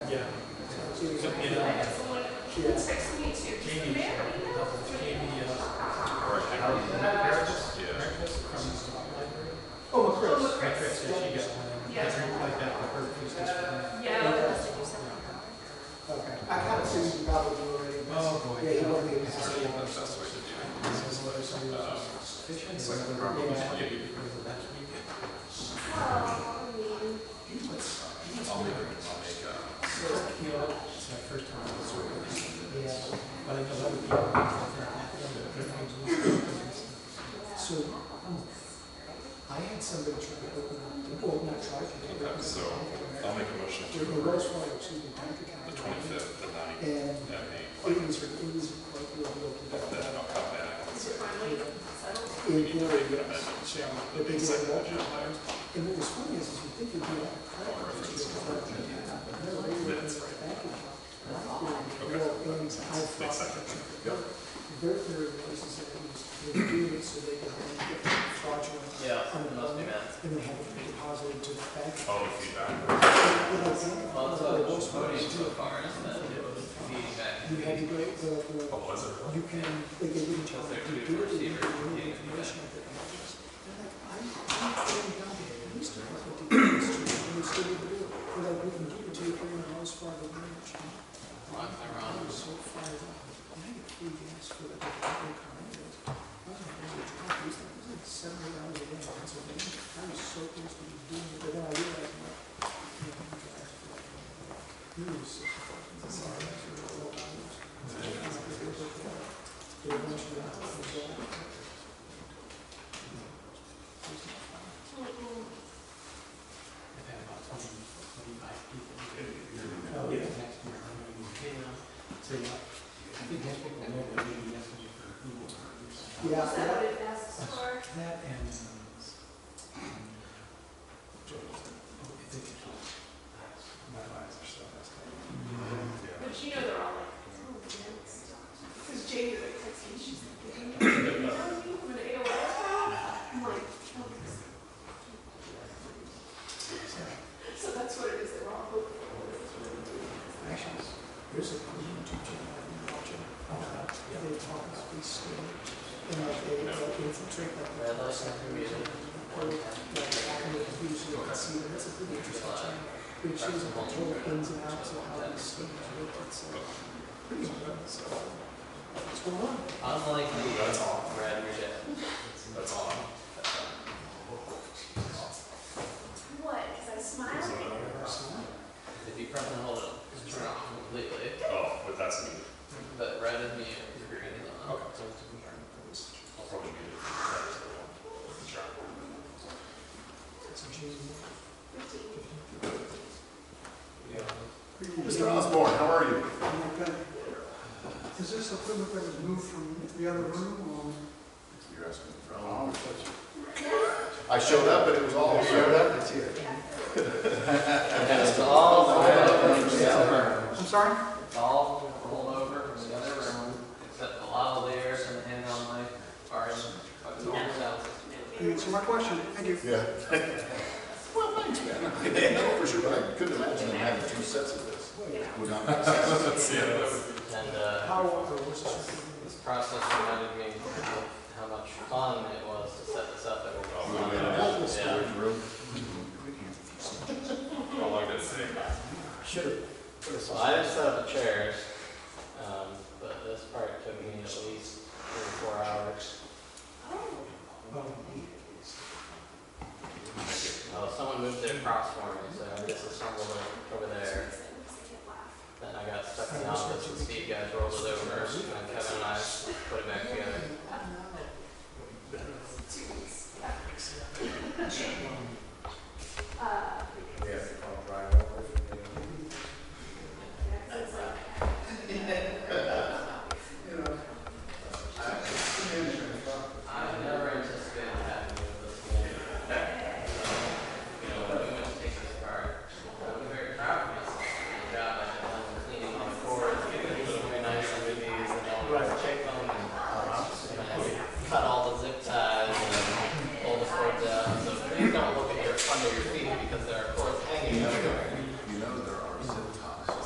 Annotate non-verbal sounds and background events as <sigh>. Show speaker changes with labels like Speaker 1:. Speaker 1: too.
Speaker 2: Took me to
Speaker 3: someone
Speaker 1: Yeah.
Speaker 3: texted me too, just the
Speaker 2: Jamie,
Speaker 3: mayor,
Speaker 2: a
Speaker 3: you know,
Speaker 2: couple of Jamie,
Speaker 4: uh,
Speaker 2: uh,
Speaker 4: Breakfast, yeah.
Speaker 2: breakfast from the library.
Speaker 1: Oh, of course.
Speaker 3: Oh,
Speaker 2: My
Speaker 3: Chris.
Speaker 2: friend said she got one.
Speaker 3: Yeah.
Speaker 2: I replied back to her, please just for me.
Speaker 3: Yeah.
Speaker 1: Okay. I kind of assumed you probably do already. but-
Speaker 2: Oh, boy.
Speaker 1: Yeah, you won't be able to
Speaker 4: That's
Speaker 1: see
Speaker 4: the
Speaker 1: it.
Speaker 4: best way to
Speaker 2: This is what I saw
Speaker 4: do it.
Speaker 2: was
Speaker 4: Um,
Speaker 2: suspicion.
Speaker 4: It's like the problem, yeah, you can.
Speaker 3: well, I mean,
Speaker 4: I'll make, I'll make, uh,
Speaker 2: You know, it's my first time. I was working with this.
Speaker 1: Yeah.
Speaker 2: But I know other people. are out there, and they're doing this. So, um,
Speaker 1: I had somebody try to open up, well, not try to.
Speaker 4: okay, so I'll make a motion
Speaker 1: There
Speaker 4: to
Speaker 1: there was
Speaker 4: approve
Speaker 1: one or two in bank
Speaker 4: the
Speaker 1: account.
Speaker 4: twenty-fifth, the ninth,
Speaker 1: And
Speaker 4: at
Speaker 1: it
Speaker 4: eight.
Speaker 1: was, it was quite a little bit.
Speaker 4: Then I'll come back and say,
Speaker 3: is it finally settled?
Speaker 1: It
Speaker 4: we need to
Speaker 1: really
Speaker 4: make an amendment
Speaker 1: was.
Speaker 4: to
Speaker 1: The
Speaker 4: the
Speaker 1: big
Speaker 4: consent
Speaker 1: one.
Speaker 4: agenda items.
Speaker 1: And what was funny is, is you think you'd be like, I don't know if it's your fault, but no, they were in the bank account. And I thought,
Speaker 4: Okay.
Speaker 1: well, and I thought.
Speaker 4: Makes sense. Yep.
Speaker 1: Their theory was is that it was, they were doing it so they could then get fraudulent.
Speaker 5: Yeah,
Speaker 1: unemployment,
Speaker 5: must be that.
Speaker 1: And they had it deposited to the bank.
Speaker 4: Oh, feedback.
Speaker 1: But I think
Speaker 5: Well, it's a
Speaker 1: what
Speaker 5: voting
Speaker 1: was
Speaker 5: so far, isn't it? Feeding back.
Speaker 1: You had to go, the, the.
Speaker 4: What was it?
Speaker 1: You can, like, they didn't tell
Speaker 5: Because
Speaker 1: you,
Speaker 5: they're
Speaker 1: you do
Speaker 5: two
Speaker 1: it, you
Speaker 5: receivers,
Speaker 1: can do the
Speaker 5: you can't
Speaker 1: information of the images. They're like, I'm, I'm going down to the police department to get this to you, and it's still able to do it. They're like, we can give it to you if you're in the house for the marriage.
Speaker 5: Lock their
Speaker 1: I
Speaker 5: own.
Speaker 1: was so fired up, and I get free gas for the, the condos. I was like, holy cow, it was like, it was like seventy hours a day in Pennsylvania. I was so close to doing it, but then I realized, like, you know, I'm driving for like, you know, six fucking hours, you know, twelve hours.
Speaker 2: I've had about twenty, twenty-five people. Oh, yeah. Next year, I'm gonna be paying them. So, yeah, I think most people know that maybe that's what you're Google.
Speaker 1: Yeah.
Speaker 3: Is that what it asks for?
Speaker 2: That and, um, um, oh, it's a- my eyes are so messed up.
Speaker 3: But you know they're all like, it's all next. Because Jamie like texts me, she's like, "Hey, you know me when AOL is out?" I'm like, "Oh, yes." So that's what it is, they're all hoping for. It's really weird.
Speaker 1: Actually, there's a YouTube channel I can watch it. They talk about these stories and like they like infiltrate like the
Speaker 5: Red light, not really.
Speaker 1: or like hack into the computer so they can see them. That's a pretty interesting channel. But it shows like the total ins and outs of how these stories work. It's like pretty impressive. What's going on?
Speaker 5: Unlike the red reject.
Speaker 4: That's all.
Speaker 3: What? Because I smiled.
Speaker 5: If you press and hold it, it's turned off completely.
Speaker 4: Oh, but that's me.
Speaker 5: But red is mute, green is on.
Speaker 4: Okay. I'll probably need it. That's the one. Sure.
Speaker 1: It's a genius.
Speaker 6: Mr. Osborne, how are you?
Speaker 1: Is this equipment that was moved from the other room
Speaker 6: You're asking for how long? I showed up, but it was all. Showed up, it's here.
Speaker 5: It's all rolled over from the other room.
Speaker 1: or? I'm sorry?
Speaker 5: It's all rolled over from the other room, except the lavaliers and the hand on my are in fucking themselves.
Speaker 1: Answer my question. Thank you.
Speaker 6: Yeah. Well, thanks, man. I didn't know for sure, but I couldn't imagine them having two sets of this. Would not make sense. <laughs>
Speaker 5: And, uh,
Speaker 1: How, uh, what's this?
Speaker 5: This process reminded me of how much fun it was to set this up every
Speaker 4: Oh,
Speaker 5: once in a
Speaker 4: yeah.
Speaker 5: while. Yeah.
Speaker 6: Storage room.
Speaker 4: How long did it take?
Speaker 6: Should've.
Speaker 5: So I just set up the chairs, um, but this part took me at least three or four hours. Oh, someone moved their props for me, so I disassembled it over there. uh,